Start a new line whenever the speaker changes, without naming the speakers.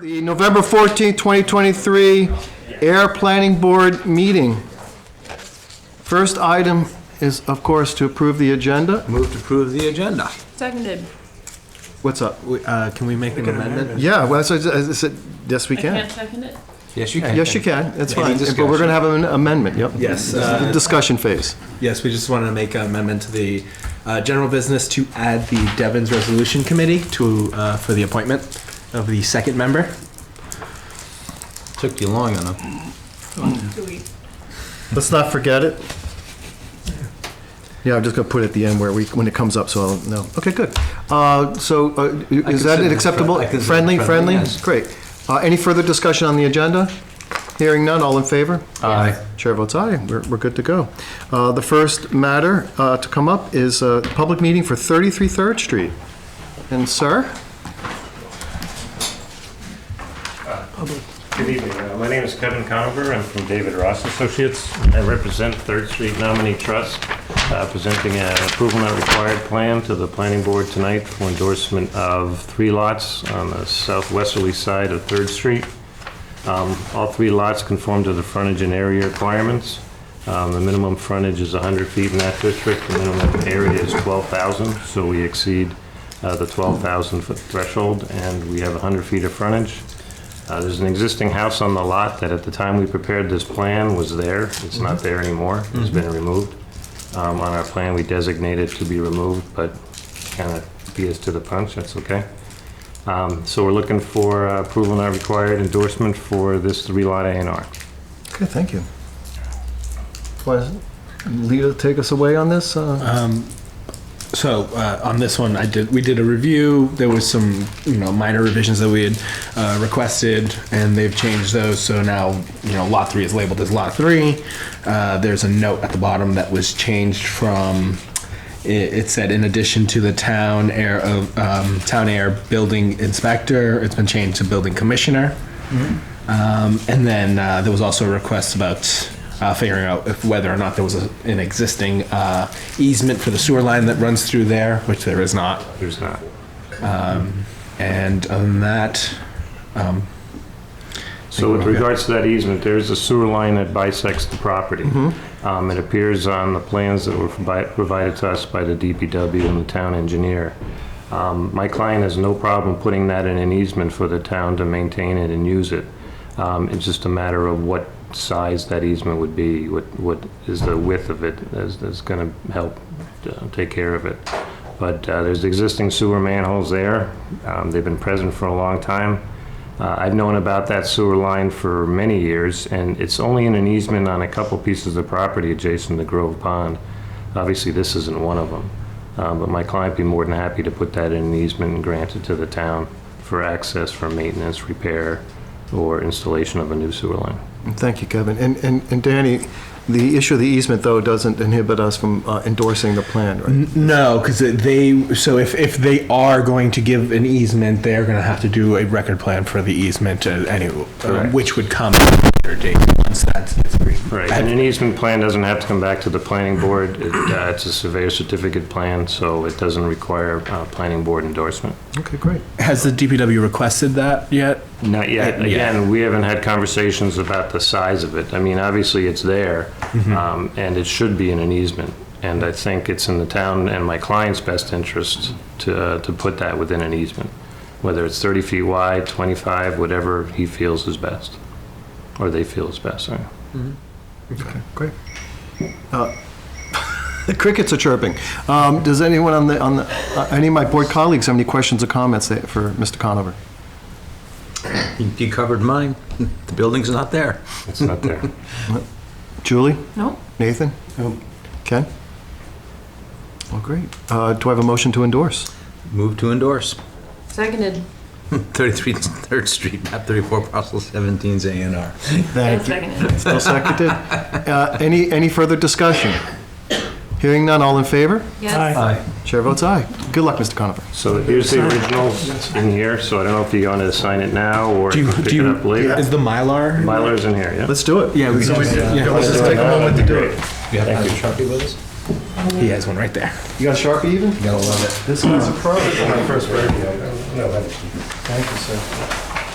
the November 14th, 2023 Air Planning Board meeting. First item is, of course, to approve the agenda.
Move to approve the agenda.
Seconded.
What's up?
We- uh, Can we make an amendment?
Yeah, well, so I said, yes, we
I
can.
can't second it?
Yes, you can.
Yes, you can, that's
Any
fine, but we're
discussion?
gonna have an amendment, yep.
Yes,
This is the
uh,
Discussion phase.
Yes, we just wanted to make an amendment to the uh, general business to add the Devon's Resolution Committee to, uh, for the appointment of the second member.
Took you long enough.
Do we?
Let's not forget it. Yeah, I'm just gonna put it at the end where we, when it comes up, so I'll know. Okay, good. Uh, So uh, is that
consider
an
it
acceptable,
fri- I consider it
friendly,
friendly,
friendly?
yes.
Great. Uh, Any further discussion on the agenda? Hearing none, all in favor?
Aye.
Uh,
Chair votes aye, we're, we're good to go. Uh, The first matter uh, to come up is a public meeting for 33 Third Street. And sir?
Good evening. Uh, My name is Kevin Conover. I'm from David Ross Associates. I represent Third Street Nominee Trust, uh, presenting an approval not required plan to the planning board tonight for endorsement of three lots on the southwesterly side of Third Street. Um, All three lots conform to the frontage and area requirements. Um, The minimum frontage is 100 feet in that district, the minimum area is 12,000, so we exceed uh, the 12,000 foot threshold, and we have 100 feet of frontage. Uh, There's an existing house on the lot that at the time we prepared this plan was there. It's not there anymore. It's been removed. Um, On our plan, we designated to be removed, but kind of beat us to the punch. That's okay. Um, So we're looking for uh, approval not required endorsement for this three-lot A and R.
Okay, thank you. Want to lead, take us away on this? Uh,
So uh, on this one, I did. We did a review. There was some, you know, minor revisions that we had uh, requested, and they've changed those. So now, you know, lot three is labeled as lot three. Uh, there's a note at the bottom that was changed from. It, it said, in addition to the town air of um, town air building inspector, it's been changed to building commissioner. Um, and then uh, there was also a request about uh, figuring out if whether or not there was a, an existing uh, easement for the sewer line that runs through there, which there is not.
There's not.
And on that,
So with regards to that easement, there is a sewer line that bisects the property. Um, It appears on the plans that were provi- provided to us by the DPW and the town engineer. Um, My client has no problem putting that in an easement for the town to maintain it and use it. Um, It's just a matter of what size that easement would be, what what is the width of it that's that's going to help uh, take care of it. But uh, there's existing sewer manholes there. Um, They've been present for a long time. Uh, I've known about that sewer line for many years, and it's only in an easement on a couple pieces of property adjacent to Grove Pond. Obviously, this isn't one of them, Um, but my client would be more than happy to put that in an easement and grant it to the town for access for maintenance, repair, or installation of a new sewer line.
Thank you, Kevin. And, and and Danny, the issue of the easement, though, doesn't inhibit us from uh, endorsing the plan,
Mm-hmm.
right?
no, because they so if, if they are going to give an easement, they're going to have to do a record plan for the easement, uh, anyway, uh,
Correct.
which would come at a later date once that's it's agreed.
Right, and an easement plan doesn't have to come back to the planning board. It, uh, It's a surveyor certificate plan, so it doesn't require uh, planning board endorsement.
Okay, great.
Has the DPW requested that yet?
Not yet.
Uh, yeah.
Again, we haven't had conversations about the size of it. I mean, obviously, it's there,
Mm-hmm.
um, and it should be in an easement. And I think it's in the town and my client's best interest to, uh, to put that within an easement, whether it's 30 feet wide, 25, whatever he feels is best, or they feel is best, sorry.
Okay, great. Uh, The crickets are chirping. Um, Does anyone on the, on the, uh, any of my board colleagues have any questions or comments that- for Mr. Conover?
You covered mine. The building's not there.
It's not there.
Julie?
No?
Nathan? Ken? Well, great. Uh, Do I have a motion to endorse?
Move to endorse.
Seconded.
33 Third Street, map 34, parcel 17's A and R.
And seconded.
Still seconded. Uh, Any, any further discussion? Hearing none, all in favor?
Yes.
Chair votes aye. Good luck, Mr. Conover.
So here's the originals in here, so I don't know if you're going to sign it now or
Do you,
pick
do
it
you,
up later.
is the Mylar?
Mylar's in here, yeah?
Let's do it.
Yeah, we can just, yeah,
Let's just take a moment to do it.
You have another Sharpie with us?
he has one right there.
You got a Sharpie even?
Gotta love it.
This one's a pro.
First radio.
Thank you, sir.